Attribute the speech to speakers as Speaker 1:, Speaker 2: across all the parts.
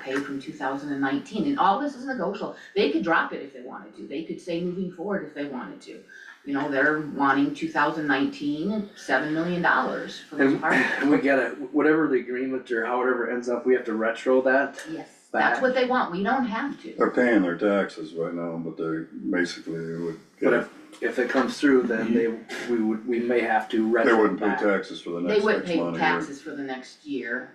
Speaker 1: pay from two thousand and nineteen, and all this is negotiable. They could drop it if they wanted to, they could say moving forward if they wanted to. You know, they're wanting 2019 seven million dollars for this
Speaker 2: And,
Speaker 1: park.
Speaker 2: and we gotta, whatever the agreement or however it ends up, we have to retro that.
Speaker 1: Yes, that's
Speaker 2: Back.
Speaker 1: what they want, we don't have to.
Speaker 3: They're paying their taxes right now, but they basically, they would,
Speaker 2: But
Speaker 3: get-
Speaker 2: if, if it comes through, then they, we would, we may have to retro
Speaker 3: Mhm. they
Speaker 2: back.
Speaker 3: wouldn't pay taxes for the
Speaker 1: They
Speaker 3: next
Speaker 1: would
Speaker 3: six
Speaker 1: pay
Speaker 3: months.
Speaker 1: taxes for the next year.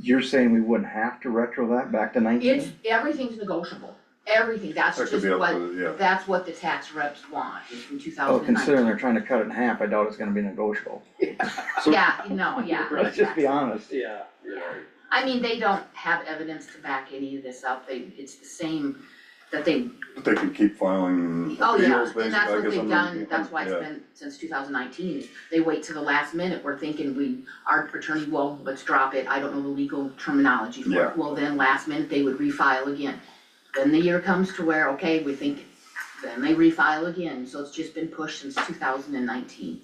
Speaker 4: You're saying we wouldn't have to retro that back to
Speaker 1: It's,
Speaker 4: nineteen?
Speaker 1: everything's negotiable, everything, that's
Speaker 3: That
Speaker 1: just
Speaker 3: could be up
Speaker 1: what,
Speaker 3: to, yeah,
Speaker 1: that's what the tax reps want, is from two
Speaker 4: Oh,
Speaker 1: thousand and nineteen.
Speaker 4: considering they're trying to cut it in half, I doubt it's gonna be negotiable.
Speaker 2: So-
Speaker 1: Yeah, no, yeah.
Speaker 4: Let's just be honest.
Speaker 2: Yeah.
Speaker 1: I mean, they don't have evidence to back any of this up, they, it's the same, that they,
Speaker 3: but they can keep filing
Speaker 1: oh yeah,
Speaker 3: appeals
Speaker 1: and
Speaker 3: basically,
Speaker 1: that's
Speaker 3: I
Speaker 1: what
Speaker 3: guess
Speaker 1: they've
Speaker 3: I'm,
Speaker 1: done, that's why it's
Speaker 3: yeah,
Speaker 1: been since two thousand nineteen. They wait to the last minute, we're thinking we, our attorney, well, let's drop it, I don't know the legal terminology for
Speaker 3: Yeah.
Speaker 1: it, well, then last minute, they would refile again. Then the year comes to where, okay, we think, then they refile again, so it's just been pushed since two thousand and nineteen.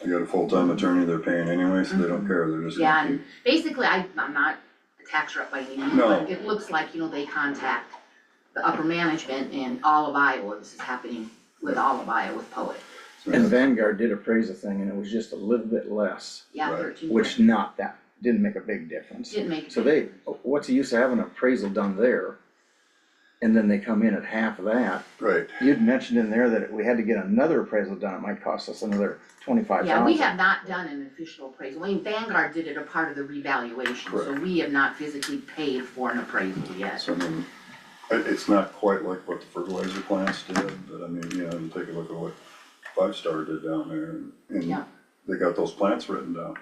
Speaker 3: they got a full-time attorney they're paying anyway, so they don't care, they're just
Speaker 1: Mm-hmm. Yeah,
Speaker 3: gonna
Speaker 1: and
Speaker 3: keep,
Speaker 1: basically, I, I'm not a tax rep by any means,
Speaker 3: No.
Speaker 1: but it looks like, you know, they contact the upper management and all of Iowa, this is happening with all of Iowa with Poet,
Speaker 4: And Vanguard did appraise the thing and it was just a little bit less,
Speaker 1: yeah,
Speaker 3: Right.
Speaker 1: thirteen.
Speaker 4: which not that, didn't make a big difference.
Speaker 1: Didn't make.
Speaker 4: So they, what's the use of having an appraisal done there? And then they come in at half of that.
Speaker 3: right,
Speaker 4: You'd mentioned in there that if we had to get another appraisal done, it might cost us another twenty-five thousand.
Speaker 1: Yeah, we have not done an official appraisal, I mean, Vanguard did it a part of the revaluation, so
Speaker 3: Correct.
Speaker 1: we have not physically paid for an appraisal yet.
Speaker 3: so I mean, it, it's not quite like what the fertilizer plants did, but I mean, you know, you take a look at what Five Star did down there, and, and
Speaker 1: Yeah.
Speaker 3: they got those plants written down.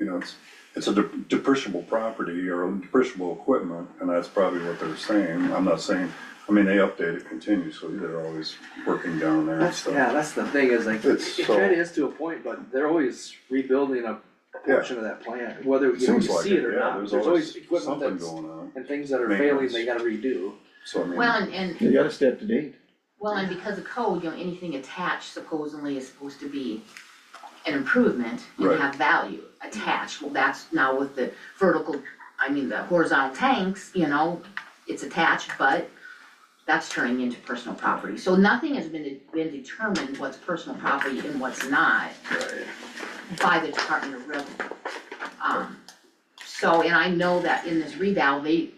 Speaker 3: You know, it's, it's a dep- depreciable property or depreciable equipment, and that's probably what they're saying, I'm not saying, I mean, they update it continuously, they're always working down there and
Speaker 2: That's,
Speaker 3: stuff.
Speaker 2: yeah, that's the thing is like, it
Speaker 3: It's so-
Speaker 2: kinda is to a point, but they're always rebuilding a a
Speaker 3: Yeah.
Speaker 2: portion of that plant, whether you know, you
Speaker 3: Seems like
Speaker 2: see it
Speaker 3: it,
Speaker 2: or
Speaker 3: yeah,
Speaker 2: not,
Speaker 3: there's
Speaker 2: always
Speaker 3: always
Speaker 2: equipment
Speaker 3: something
Speaker 2: that's,
Speaker 3: going on,
Speaker 2: and things that are failing,
Speaker 3: Maintenance.
Speaker 2: they gotta redo.
Speaker 3: so I mean.
Speaker 1: Well, and, and
Speaker 4: You gotta stay up to date.
Speaker 1: Well, and because of code, you know, anything attached supposedly is supposed to be an improvement and
Speaker 3: Right.
Speaker 1: have value attached. Well, that's now with the vertical, I mean, the horizontal tanks, you know, it's attached, but that's turning into personal property. So nothing has been, been determined what's personal property and what's not by the Department of Revenue. Um, so, and I know that in this reval, they,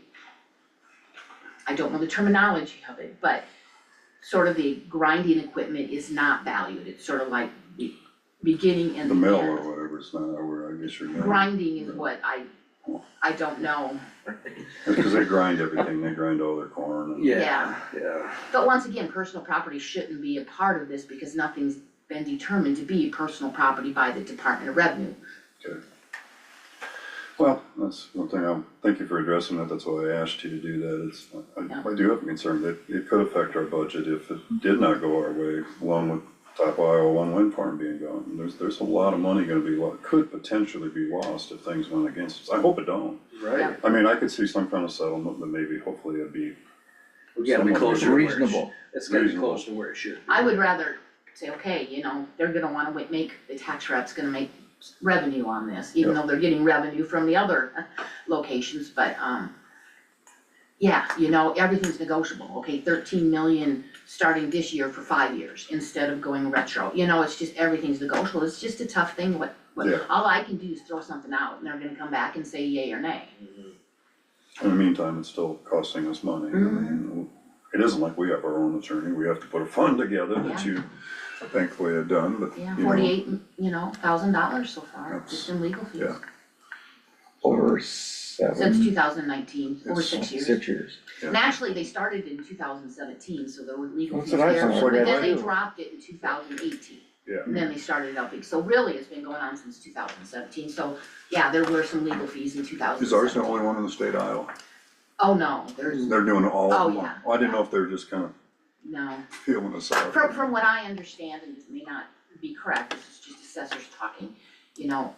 Speaker 1: I don't know the terminology of it, but sort of the grinding equipment is not valued, it's sort of like the beginning and
Speaker 3: The
Speaker 1: the
Speaker 3: mill
Speaker 1: end.
Speaker 3: or whatever, it's not, or I guess you're gonna,
Speaker 1: Grinding is what I, I don't know,
Speaker 3: because they grind everything, they grind all their corn and.
Speaker 2: Yeah, yeah.
Speaker 1: but once again, personal property shouldn't be a part of this because nothing's been determined to be personal property by the Department of Revenue.
Speaker 3: Well, that's one thing, um, thank you for addressing that, that's why I asked you to do that, it's, I, I do have a concern that it could affect our budget if it did not go our way, along with top Iowa one wind farm being gone, And there's, there's a lot of money gonna be, lo- could potentially be lost if things went against us, I hope it don't.
Speaker 2: Right,
Speaker 3: I mean, I could see some kind of settlement, but maybe hopefully it'd be,
Speaker 2: we gotta be
Speaker 3: Somewhat
Speaker 2: closer to where it should-
Speaker 4: Reasonable.
Speaker 2: It's gotta be
Speaker 3: Reasonable.
Speaker 2: close to where it should. be.
Speaker 1: I would rather say, okay, you know, they're gonna wanna wa- make, the tax rep's gonna make s- revenue on this, even though they're getting revenue from the other uh, locations, but, um, yeah, you know, everything's negotiable, okay, thirteen million starting this year for five years instead of going retro, you know, it's just, everything's negotiable, it's just a tough thing, what, what,
Speaker 3: Yeah.
Speaker 1: all I can do is throw something out and they're gonna come back and say yay or nay.
Speaker 3: in the meantime, it's still costing us money, I
Speaker 1: Mm-hmm.
Speaker 3: mean, it isn't like we have our own attorney, we have to put a fund together that
Speaker 1: Yeah.
Speaker 3: you thankfully have done, but, you
Speaker 1: Yeah,
Speaker 3: know.
Speaker 1: forty-eight, you know, thousand dollars so far, just in legal fees,
Speaker 3: yeah.
Speaker 4: Over
Speaker 1: since
Speaker 4: seven,
Speaker 1: two thousand nineteen, over
Speaker 3: It's-
Speaker 1: six years.
Speaker 4: six years.
Speaker 1: And actually, they started in two thousand seventeen, so there were legal
Speaker 4: That's
Speaker 1: fees
Speaker 4: what I
Speaker 1: there,
Speaker 4: thought.
Speaker 1: but
Speaker 4: Why
Speaker 1: then they
Speaker 4: do?
Speaker 1: dropped it in two thousand eighteen.
Speaker 3: Yeah.
Speaker 1: And then they started it up, so really, it's been going on since two thousand seventeen, so, yeah, there were some legal fees in two thousand
Speaker 3: Is ours the
Speaker 1: seventeen.
Speaker 3: only one in the state of Iowa?
Speaker 1: Oh, no, there's,
Speaker 3: They're doing all
Speaker 1: Oh,
Speaker 3: of them.
Speaker 1: yeah.
Speaker 3: Well, I didn't know if they were just kind of
Speaker 1: no,
Speaker 3: feeling us out.
Speaker 1: from, from what I understand, and this may not be correct, this is just assessors talking, you know,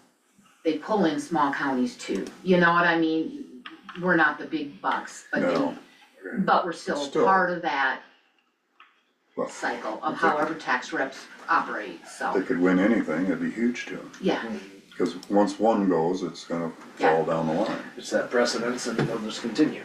Speaker 1: they pull in small counties too, you know what I mean? We're not the big bucks, but they,
Speaker 3: No.
Speaker 1: but we're still
Speaker 3: Still.
Speaker 1: part of that
Speaker 3: Well,
Speaker 1: cycle of
Speaker 3: if they-
Speaker 1: however tax reps operate, so.
Speaker 3: If They could win anything, it'd be huge to them.
Speaker 1: Yeah,
Speaker 3: Cause once one goes, it's gonna fall down the line.
Speaker 2: It's that precedence and it'll just continue.